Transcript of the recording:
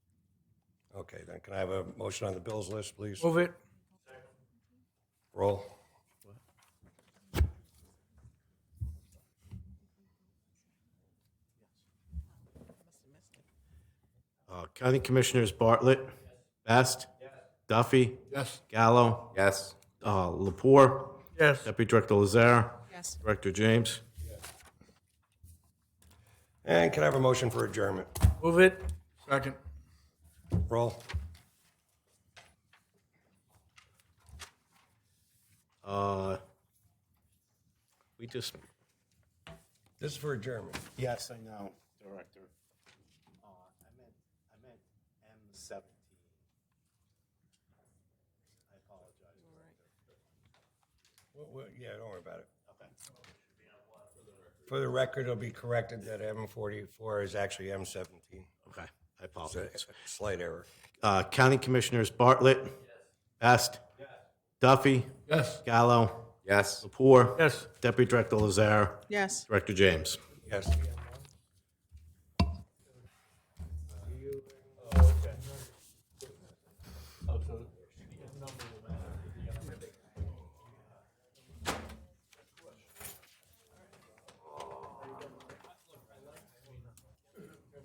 Okay, then can I have a motion on the bills list, please? Move it. Roll. Uh, County Commissioners Bartlett. Best. Duffy. Yes. Gallo. Yes. Uh, Lapore. Yes. Deputy Director Lazar. Yes. Director James. And can I have a motion for adjournment? Move it. Second. Roll. Uh, We just. This is for adjournment. Yes, I know, Director. Uh, I meant, I meant M seventeen. I apologize. Well, well, Yeah, don't worry about it. For the record, it'll be corrected that M forty-four is actually M seventeen. Okay, I It's a- apologize. it's a Slight error. Uh, County Commissioners Bartlett. Best. Duffy. Yes. Gallo. Yes. Lapore. Yes. Deputy Director Lazar. Yes. Director James. Yes.